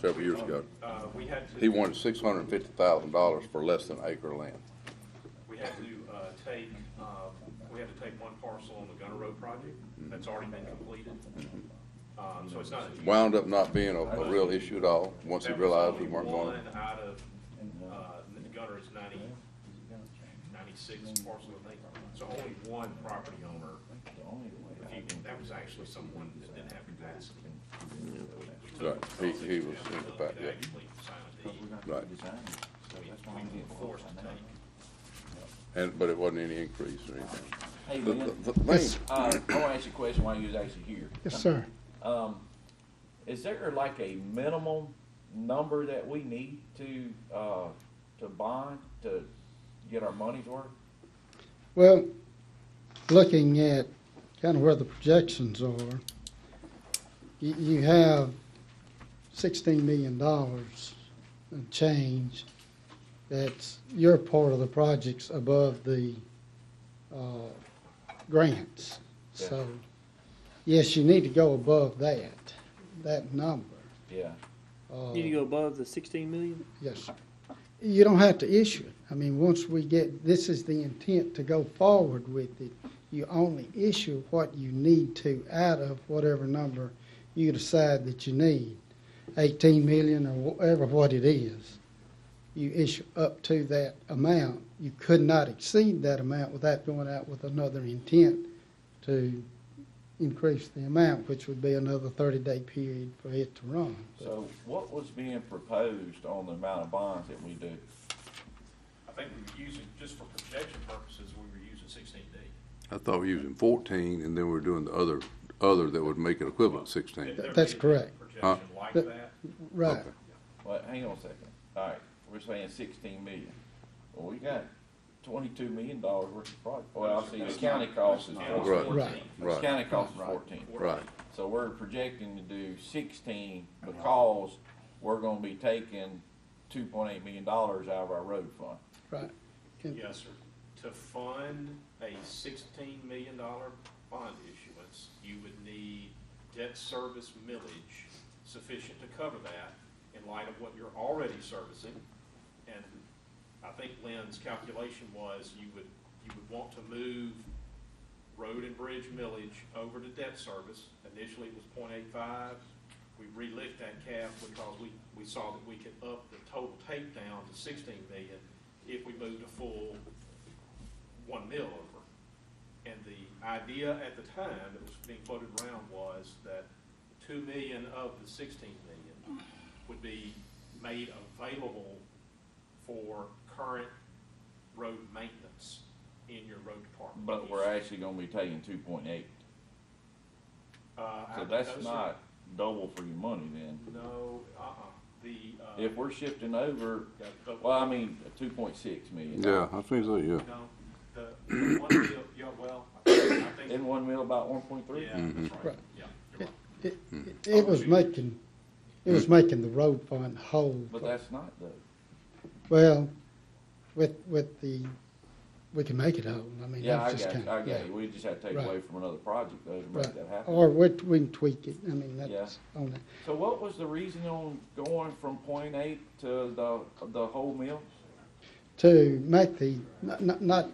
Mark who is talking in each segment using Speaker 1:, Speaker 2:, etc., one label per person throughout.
Speaker 1: several years ago.
Speaker 2: Uh, we had to.
Speaker 1: He wanted six hundred and fifty thousand dollars for less than acre land.
Speaker 2: We had to, uh, take, uh, we had to take one parcel on the Gunner Road project that's already been completed. Um, so it's not. a huge-
Speaker 1: Wound up not being a, a real issue at all, once he
Speaker 2: That was
Speaker 1: realized he
Speaker 2: only
Speaker 1: weren't going.
Speaker 2: One out of, uh, the Gunner's ninety, ninety-six parcel, I think. So only one property owner, if you, that was actually someone that didn't have capacity. We took
Speaker 1: Right. uh, He- he was
Speaker 2: the
Speaker 1: in the back, yeah.
Speaker 2: Actually signed a deed.
Speaker 1: Right,
Speaker 2: We, we were forced to take.
Speaker 1: and, but it wasn't any increase or anything.
Speaker 3: Hey,
Speaker 1: The-
Speaker 3: man,
Speaker 1: the- the thing-
Speaker 3: uh, I want to ask you a question while you was actually here.
Speaker 4: Yes,
Speaker 5: Uh-huh.
Speaker 4: sir.
Speaker 3: Um, is there like a minimum number that we need to, uh, to bond to get our money's worth?
Speaker 4: Well, looking at kind of where the projections are, you, you have sixteen million dollars and change. That's your part of the projects above the, uh, grants.
Speaker 3: Yeah.
Speaker 4: So, yes, you need to go above that, that number.
Speaker 3: Yeah,
Speaker 4: Uh,
Speaker 5: Need to go above the sixteen million?
Speaker 4: Yes, sir. You don't have to issue it. I mean, once we get, this is the intent to go forward with it. You only issue what you need to out of whatever number you decide that you need, eighteen million or whatever what it is. You issue up to that amount. You could not exceed that amount without going out with another intent to increase the amount, which would be another thirty-day period for it to run.
Speaker 3: so what was being proposed on the amount of bonds that we do?
Speaker 2: I think we were using, just for projection purposes, we were using sixteen D.
Speaker 1: I thought we were using fourteen, and then we were doing the other, other that would make it equivalent
Speaker 2: There-
Speaker 1: sixteen.
Speaker 2: there
Speaker 4: That's
Speaker 2: may be a
Speaker 4: correct.
Speaker 2: Projection like
Speaker 4: But-
Speaker 2: that.
Speaker 4: Right.
Speaker 3: Well, hang on a second, all right, we're saying sixteen million. Well, we got twenty-two million dollars worth of project, well, I see the county cost is
Speaker 2: Right,
Speaker 3: fourteen.
Speaker 4: right.
Speaker 3: The
Speaker 1: Right.
Speaker 3: county cost is fourteen.
Speaker 1: Right,
Speaker 3: So we're projecting to do sixteen because we're gonna be taking two point eight million dollars out of our road fund.
Speaker 4: Right. Can-
Speaker 2: Yes, sir. To fund a sixteen million dollar bond issuance, you would need debt service millage sufficient to cover that in light of what you're already servicing. And I think Lynn's calculation was you would, you would want to move road and bridge millage over to debt service. Initially, it was 0.85. We relift that cap because we, we saw that we could up the total take down to sixteen million if we moved a full one mil over. And the idea at the time that was being floated around was that two million of the sixteen million would be made available for current road maintenance in your road department.
Speaker 3: But we're actually gonna be taking two point eight.
Speaker 2: Uh, I-
Speaker 3: So that's
Speaker 2: those are-
Speaker 3: not double for your money then.
Speaker 2: No, uh-uh, the, uh.
Speaker 3: If we're shifting over,
Speaker 2: yeah, the-
Speaker 3: well, I mean, two point six million.
Speaker 1: yeah, I think so, yeah.
Speaker 2: No, the, the one, deal- yeah, well, I think, I think-
Speaker 3: In one mill about one point three?
Speaker 2: yeah, that's right,
Speaker 4: Right.
Speaker 2: yeah, you're right.
Speaker 4: It, it- it was making, it was making the road fund whole.
Speaker 3: But that's not though.
Speaker 4: Well, with, with the, we can make it whole, I mean,
Speaker 3: Yeah, I
Speaker 4: that's just
Speaker 3: got,
Speaker 4: kind
Speaker 3: you, I
Speaker 4: of.
Speaker 3: got you. We just have to take
Speaker 4: Right.
Speaker 3: away from another project though to make that happen.
Speaker 4: Or we, we can tweak it, I mean, that's on that.
Speaker 3: So what was the reason on going from point eight to the, the whole mill?
Speaker 4: To make the, not- not, not,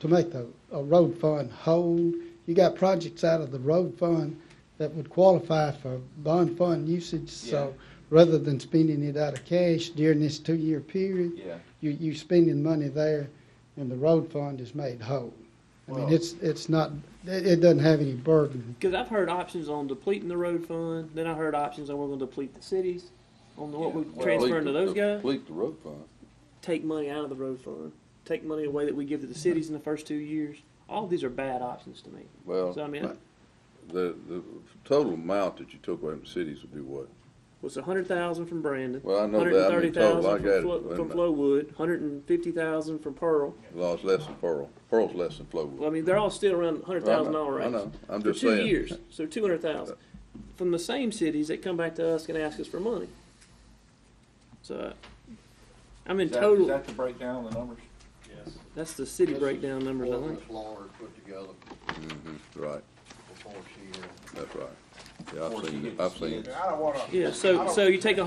Speaker 4: to make the, a road fund whole, you got projects out of the road fund that would qualify for bond fund usage, so rather than spending it out of cash during this two-year period,
Speaker 3: Yeah.
Speaker 4: you, you spending money there and the road fund is made whole. I mean,
Speaker 3: Well-
Speaker 4: it's, it's not, it, it doesn't have any burden.
Speaker 5: Because I've heard options on depleting the road fund, then I heard options on we're gonna deplete the cities, on the- what
Speaker 3: Yeah,
Speaker 5: we
Speaker 3: well-
Speaker 5: transfer into those guys,
Speaker 1: Leak the road fund.
Speaker 5: take money out of the road fund, take money away that we give to the cities in the first two years. All these are bad options to me. So I
Speaker 1: Well,
Speaker 5: mean,
Speaker 1: the, the total amount that you took away from cities would be what?
Speaker 5: what's a hundred thousand from Brandon?
Speaker 1: Well, I know that. I mean,
Speaker 5: Hundred and thirty
Speaker 1: total, I
Speaker 5: thousand
Speaker 1: got it.
Speaker 5: from Flo-
Speaker 1: Wait a
Speaker 5: from
Speaker 1: minute.
Speaker 5: Flowood, hundred and fifty thousand from Pearl.
Speaker 1: Well, it's less than Pearl. Pearl's less than
Speaker 5: Well, I
Speaker 1: Flowood.
Speaker 5: mean, they're all still around hundred thousand dollar
Speaker 1: I
Speaker 5: range.
Speaker 1: know, I'm
Speaker 5: For
Speaker 1: just
Speaker 5: two
Speaker 1: saying.
Speaker 5: years, so two hundred thousand, from the same cities that come back to us and ask us for money. So, I'm in
Speaker 3: Is that, is
Speaker 5: total,
Speaker 3: that the breakdown of the numbers?
Speaker 2: Yes,
Speaker 5: that's the city breakdown numbers, I think.
Speaker 6: Florida put together
Speaker 1: Mhm, Right,
Speaker 6: before she, uh,
Speaker 1: that's right. Yeah, I've
Speaker 3: Before she
Speaker 1: seen, it.
Speaker 3: gets
Speaker 1: I've seen. it.
Speaker 3: skids.
Speaker 6: I don't wanna.
Speaker 5: Yeah,
Speaker 6: I
Speaker 5: so,
Speaker 6: don't-
Speaker 5: so you take a